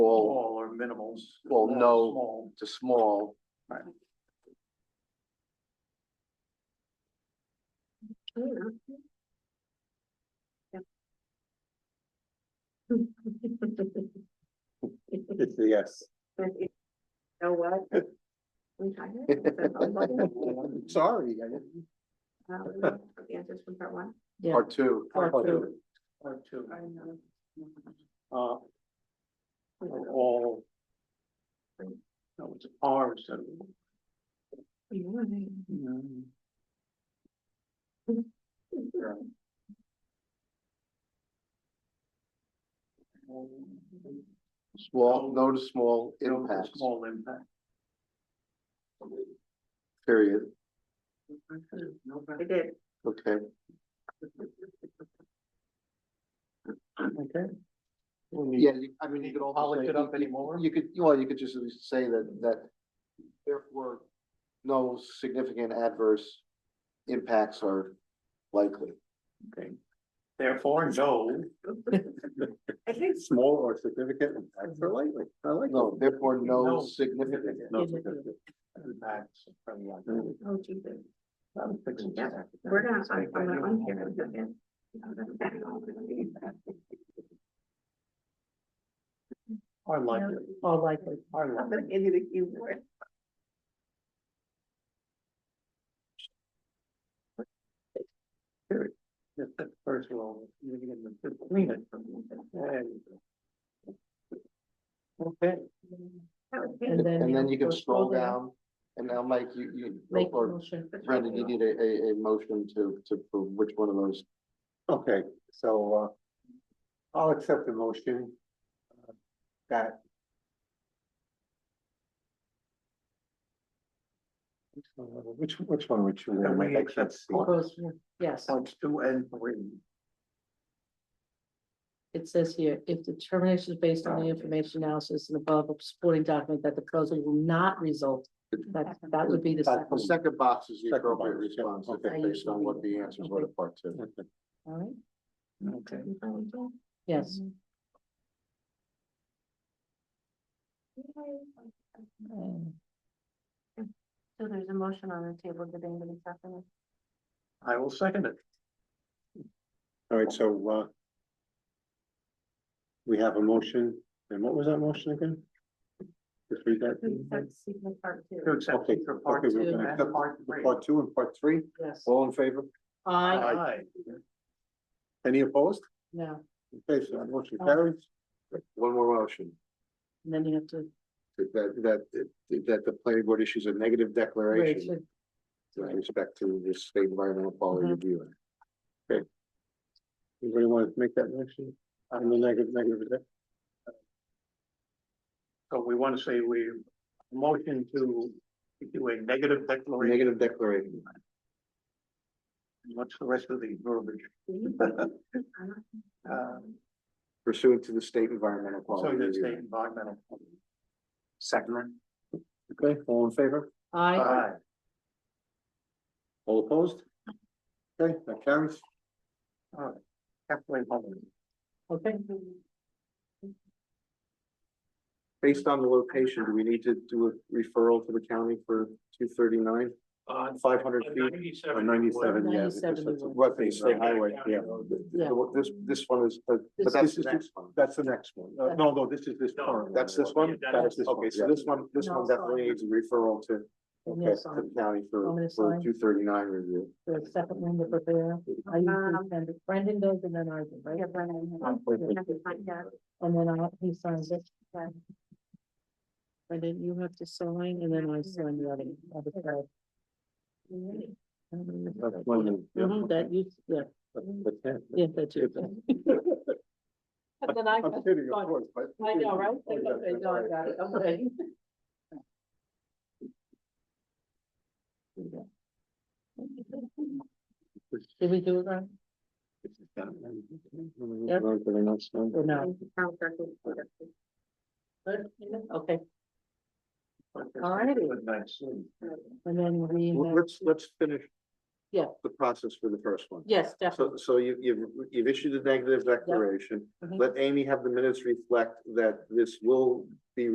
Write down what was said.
no, Small or minimals. Well, Small, no. Small. to small. It's a yes. Know what? We tired? Sorry, I didn't. Uh, we have The answers from part one. Yeah. Part two, Part two. Or two. I know. Uh, or all. No, it's R instead of. Mm. small, no to small No, impacts, Small impact. period. I did. Okay, Okay. yeah, you- I mean, you could also Polish say, it up anymore? you could, well, you could just at least say that, that there were no significant adverse impacts are likely. Okay. Therefore, no. I think Small or significant impacts Mm-hmm. are likely. I like. No, that. therefore, No. no significant. No significant. Impacts from the other. Mm. Oh, Jesus. I'm fixing Yeah, that. We're gonna, I'm, If I I'm do- gonna unhear it again. I'm gonna back it off and leave that. Or likely, All likely. or I'm likely. gonna give you the cue for it. If the first one, you're gonna get the Mm. clean it. There you go. Okay, That was And me. then. And then you can know, scroll down, and now, Mike, you, you, Make a or motion. Brendan, you need a, a, a motion to, to, for which one of those? Okay, so uh, I'll accept the motion. uh, That. Which one- uh, Which, which one would you? And we recommend? I can't accept see. all- Goes, yes, points two and three. it says here, if determination is based on the information analysis and above supporting document that the proposal will not result. That, that would be the That's second. The second box is the Uh, Second appropriate box, yeah, response, okay. based on what the answers were to part two. Okay. All right, Okay. yes, Um, So there's a motion on the table, did anybody second it? I will second it. All right, so uh. We have a motion, and what was that motion again? Just read that. Mm-hmm. Please start seeking part two. To accept Okay, for part okay, two we're and gonna accept part the three. Part two and part three, yes, all in favor? I, Aye. Any opposed? no, Okay, so that motion carries. One more motion, and then you have to. that, that, that the planning board issues a negative declaration Rachel, with respect to the state environmental quality Mhm. review. Act. Anybody want to make that motion? I'm the negative, negative. is it? So we want to say we motion to do a negative declaration. Negative declaration, What's the rest of the verbiage? Uh, pursuant to the state environmental So quality the review. state Act. environmental. Second. Okay, all in favor? I, Aye. All opposed? Okay, that carries. Halfway home. okay, Based on the location, do we need to do a referral to the county for two thirty-nine? On Uh, Five hundred feet or ninety-seven. ninety-seven, yeah. 97 because it's a would. Wetland state highway, yeah. Yeah. So This, this one is, but This but that's is- the next one. That's the next one. Uh, No, no, this is this No. current. That's this one? Yeah, That is this one, Okay, yeah. so this one, this No, one sorry. definitely needs a referral to, and okay, yes, to on the county I'm for, gonna for sign. two thirty-nine review. the second one, the prepare, I usually Um, send it, Brendan does and then I do, right? Yeah, Brennan, Um, wait, wait. you have to find out. And then I, he signs it. Yeah. And then you have to sign and then I sign the other, other side. That's one of them, yeah. Mhm, That you, yeah, That's- that's it. yeah, that's you. And then I, I'm kidding, of course, but. I know, right? Okay, no, I got it, okay. Did we do it right Yep. or no? Town circle, whatever. Okay, All righty. Nice. and then we. Well, have- Let's, let's finish Yeah. The process for the first one. Yes, definitely. So, so you, you've, you've issued a negative declaration. Mhm. Let Amy have the minutes reflect that this will be